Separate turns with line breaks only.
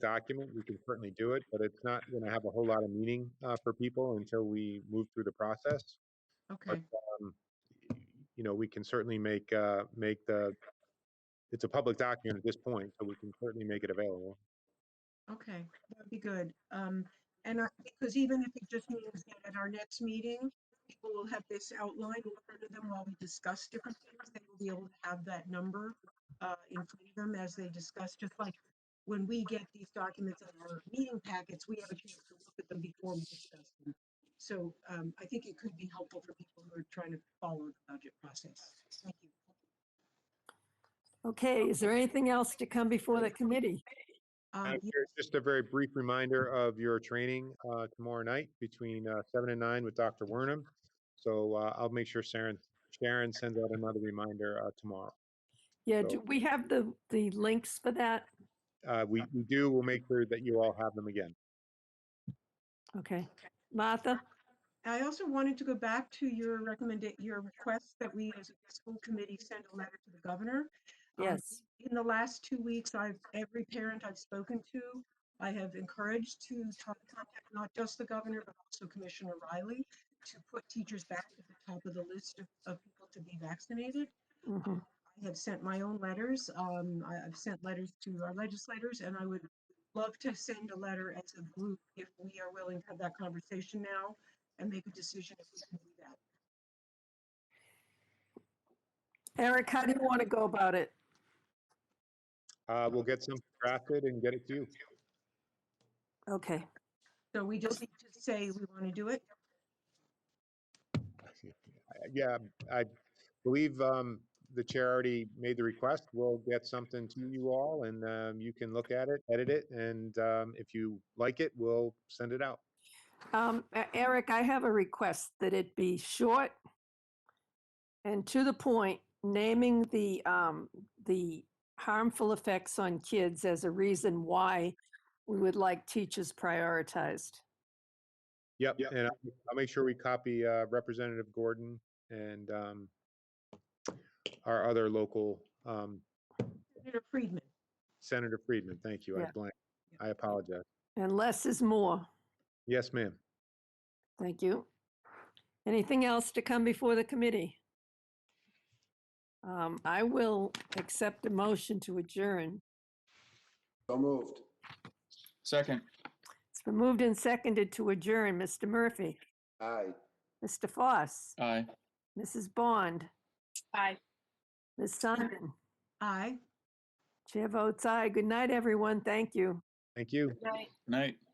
document, we can certainly do it, but it's not going to have a whole lot of meaning uh, for people until we move through the process.
Okay,
You know, we can certainly make, uh, make the, it's a public document at this point, so we can certainly make it available.
okay, that'd be good. Um, and I, because even if it just means that at our next meeting, people will have this outlined in front of them while we discuss different things, they will be able to have that number uh, in front of them as they discuss, just like when we get these documents in our meeting packets, we have a chance to look at them before we discuss them. So, um, I think it could be helpful for people who are trying to follow the budget process. Thank you.
Okay, is there anything else to come before the committee?
Um,
Madam Chair, Just a very brief reminder of your training uh, tomorrow night between uh, seven and nine with Dr. Wernham. So uh, I'll make sure Sharon, Sharon sends out another reminder uh, tomorrow.
Yeah, do we have the, the links for that?
Uh, We we do, we'll make sure that you all have them again.
Okay. Martha?
I also wanted to go back to your recommended, your request that we as a school committee send a letter to the governor. Um,
Yes.
In the last two weeks, I've, every parent I've spoken to, I have encouraged to t- contact not just the governor, but also Commissioner Riley to put teachers back at the top of the list of, of people to be vaccinated.
Mhm.
I have sent my own letters. Um, I, I've sent letters to our legislators and I would love to send a letter as a group if we are willing to have that conversation now and make a decision if we can do that.
Eric, how do you want to go about it?
Uh, We'll get some drafted and get it to you.
Okay,
So we just need to say we want to do it.
Yeah, I believe um, the chair already made the request. We'll get something to you all and um, you can look at it, edit it, and um, if you like it, we'll send it out.
Um, E- Eric, I have a request that it be short and to the point, naming the, um, the harmful effects on kids as a reason why we would like teachers prioritized.
Yep, and I'll I'll make sure we copy uh, Representative Gordon and um, our other local, um,
Senator Friedman.
Senator Friedman, thank you, I
Yeah.
blank, I apologize.
And less is more.
Yes, ma'am.
Thank you. Anything else to come before the committee? Um, I will accept a motion to adjourn.
So moved.
Second,
It's been moved and seconded to adjourn. Mr. Murphy,
Aye.
Mr. Foss,
aye.
Mrs. Bond. Aye. Ms. Simon,
Aye.
chair votes aye. Good night, everyone. Thank you.
Thank you.
Night.